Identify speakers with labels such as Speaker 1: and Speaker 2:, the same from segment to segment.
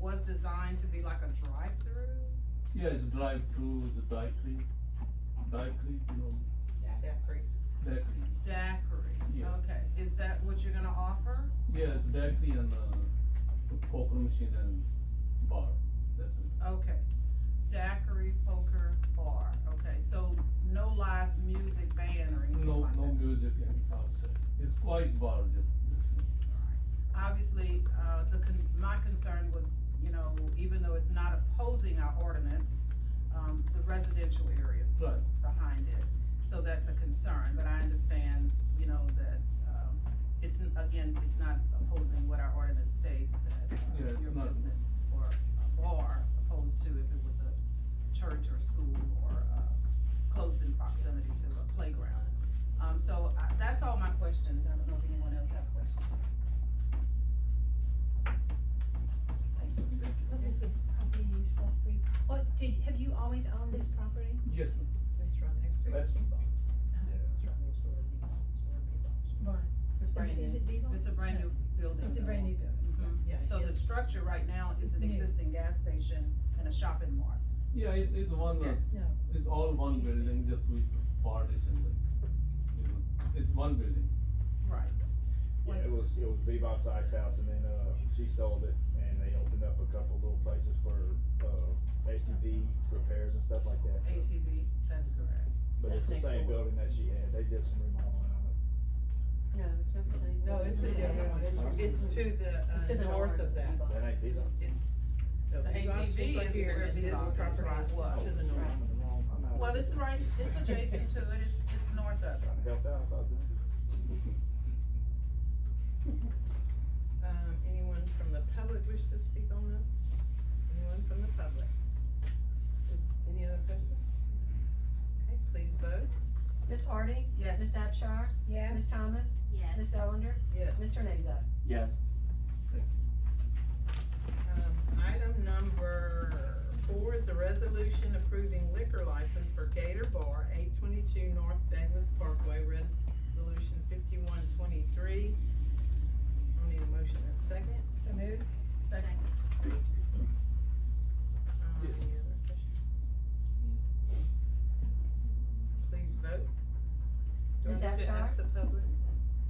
Speaker 1: was designed to be like a drive-through.
Speaker 2: Yeah, it's a drive-through, it's a dry clean, dry clean, you know, dry clean.
Speaker 1: Daiquiri,
Speaker 2: Yes.
Speaker 1: okay, is that what you're gonna offer?
Speaker 2: Yeah, it's dry clean and, uh, poker machine and bar, that's it.
Speaker 1: Okay, daiquiri poker bar, okay, so no live music band or anything
Speaker 2: No,
Speaker 1: like that?
Speaker 2: no music and it's outside, it's quite bar, just, just,
Speaker 1: Obviously, uh, the, con- my concern was, you know, even though it's not opposing our ordinance, um, the residential area
Speaker 2: right,
Speaker 1: behind it. So that's a concern, but I understand, you know, that, um, it's, again, it's not opposing what our ordinance states that uh,
Speaker 2: Yeah, it's
Speaker 1: your
Speaker 2: not.
Speaker 1: business or a bar opposed to if it was a church or school or, uh, close in proximity to a playground. Um, so I, that's all my questions. I don't know if anyone else have questions.
Speaker 3: What was the property use for three? What, did, have you always owned this property?
Speaker 2: yes, ma'am.
Speaker 4: Restaurant next door.
Speaker 5: That's-
Speaker 4: Yeah, Restaurant next door to Bebops, or Bebops.
Speaker 3: Right.
Speaker 4: It's brand
Speaker 3: Is
Speaker 4: new.
Speaker 3: it Bebo's?
Speaker 1: It's a brand new building.
Speaker 3: It's a brand new building.
Speaker 1: Mhm.
Speaker 4: Yeah,
Speaker 1: So the
Speaker 4: it's-
Speaker 1: structure right now is
Speaker 3: It's
Speaker 1: an
Speaker 3: new.
Speaker 1: existing gas station and a shopping mall.
Speaker 2: Yeah, it's, it's one, uh,
Speaker 1: Yes.
Speaker 3: No.
Speaker 2: it's all one building, just with partition, like, you know, it's one building.
Speaker 1: Right.
Speaker 5: Yeah, it was, it was Bebop's Ice House and then, uh, she sold it and they opened up a couple little places for, uh, SUV repairs and stuff like that. so-
Speaker 1: ATV, that's correct.
Speaker 5: But it's the
Speaker 4: That's next
Speaker 5: same
Speaker 4: door.
Speaker 5: building that she had, they did some remodeling on it.
Speaker 6: No, it's not the same.
Speaker 4: No, it's a different one, it's, it's to the,
Speaker 6: It's to
Speaker 4: uh,
Speaker 6: the
Speaker 4: north
Speaker 6: north
Speaker 4: of
Speaker 6: of
Speaker 4: that.
Speaker 6: Bebop.
Speaker 5: That ain't
Speaker 4: It's,
Speaker 5: Bebop.
Speaker 4: it's. The
Speaker 1: ATV is where
Speaker 4: This
Speaker 1: Bebop
Speaker 4: property
Speaker 1: was.
Speaker 4: is to the north.
Speaker 1: Well, it's right, it's adjacent to it, it's, it's north of it.
Speaker 5: Trying to help out, I thought, didn't I?
Speaker 4: Um, anyone from the public wish to speak on this? Anyone from the public? Is, any other questions? Okay, please vote.
Speaker 6: Ms. Hardy?
Speaker 1: Yes.
Speaker 6: Ms. Abchar? Ms.
Speaker 3: Yes.
Speaker 6: Thomas?
Speaker 7: Yes.
Speaker 6: Ms. Ellender?
Speaker 4: Yes.
Speaker 6: Mr. Nazat?
Speaker 2: Yes.
Speaker 4: Um, item number four is a resolution approving liquor license for Gator Bar, eight twenty-two North Douglas Parkway, resolution fifty-one twenty-three. I need a motion and second.
Speaker 3: So moved?
Speaker 1: Second.
Speaker 4: Um,
Speaker 2: Yes.
Speaker 4: Any other questions? Please vote. Do I need
Speaker 6: Ms.
Speaker 4: to
Speaker 6: Abchar?
Speaker 4: ask the public?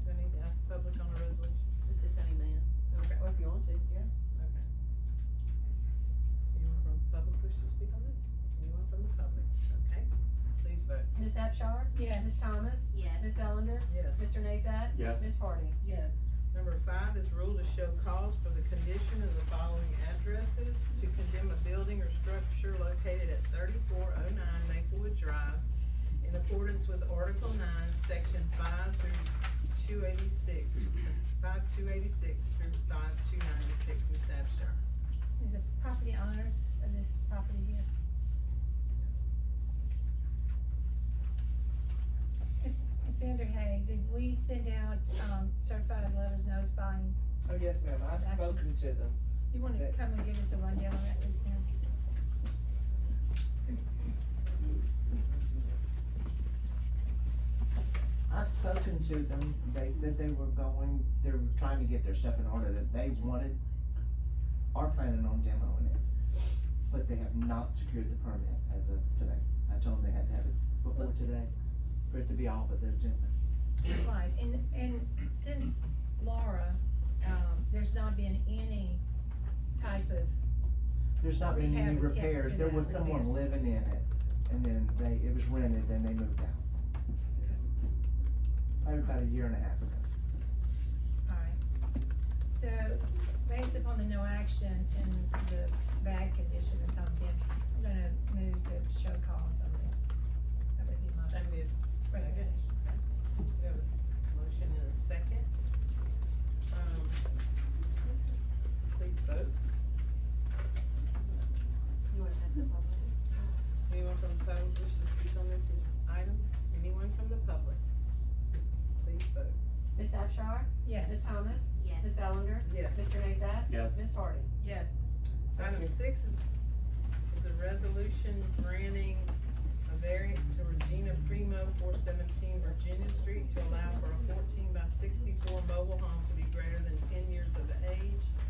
Speaker 4: Do I need to ask the public on a resolution?
Speaker 6: It's the same man.
Speaker 4: Okay.
Speaker 6: Or if you want to, yeah.
Speaker 4: Okay. Anyone from public wish to speak on this? Anyone from the public? Okay, please vote.
Speaker 6: Ms. Abchar?
Speaker 3: Yes.
Speaker 6: Ms. Thomas?
Speaker 7: Yes.
Speaker 6: Ms. Ellender?
Speaker 4: Yes.
Speaker 6: Mr. Nazat?
Speaker 2: Yes.
Speaker 6: Ms. Hardy?
Speaker 1: Yes.
Speaker 4: Number five is rule to show cause for the condition of the following addresses to condemn a building or structure located at thirty-four oh nine Maplewood Drive in accordance with Article nine, section five through two eighty-six, five two eighty-six through five two ninety-six, Ms. Abchar.
Speaker 3: Is the property owners of this property here? Ms. Ms. Vanderhay, did we send out, um, certified letters notifying?
Speaker 8: Oh, yes, ma'am, I've
Speaker 3: Action.
Speaker 8: spoken to them.
Speaker 3: You wanna come and give us a rundown on that, please, ma'am?
Speaker 8: I've spoken to them, they said they were going, they were trying to get their stuff in order that they wanted, are planning on demoing it. But they have not secured the permit as of today. I told them they had to have it before today, for it to be off of the agenda.
Speaker 3: Right, and, and since Laura, um, there's not been any type of,
Speaker 8: There's not been
Speaker 3: Rehab
Speaker 8: any
Speaker 3: attempts
Speaker 8: repairs,
Speaker 3: to
Speaker 8: there
Speaker 3: that,
Speaker 8: was someone
Speaker 3: repairs.
Speaker 8: living in it, and then they, it was rented, and they moved out. Probably About a year and a half ago.
Speaker 3: alright. So, based upon the no action and the bad condition that comes in, I'm gonna move to show cause on this. That would be my
Speaker 4: Seconded.
Speaker 3: recommendation.
Speaker 4: We have a Motion and a second. Um, Please vote.
Speaker 6: You want to have the public?
Speaker 4: Anyone from the public wish to speak on this item? Anyone from the public? Please vote.
Speaker 6: Ms. Abchar? Ms.
Speaker 3: Yes,
Speaker 6: Thomas?
Speaker 7: Yes.
Speaker 6: Ms. Ellender?
Speaker 4: Yes.
Speaker 6: Mr. Nazat?
Speaker 2: Yes.
Speaker 6: Ms. Hardy?
Speaker 1: Yes.
Speaker 4: Item six is, is a resolution granting a variance to Regina Primo, four seventeen Virginia Street to allow for a fourteen by sixty-four mobile home to be greater than ten years of age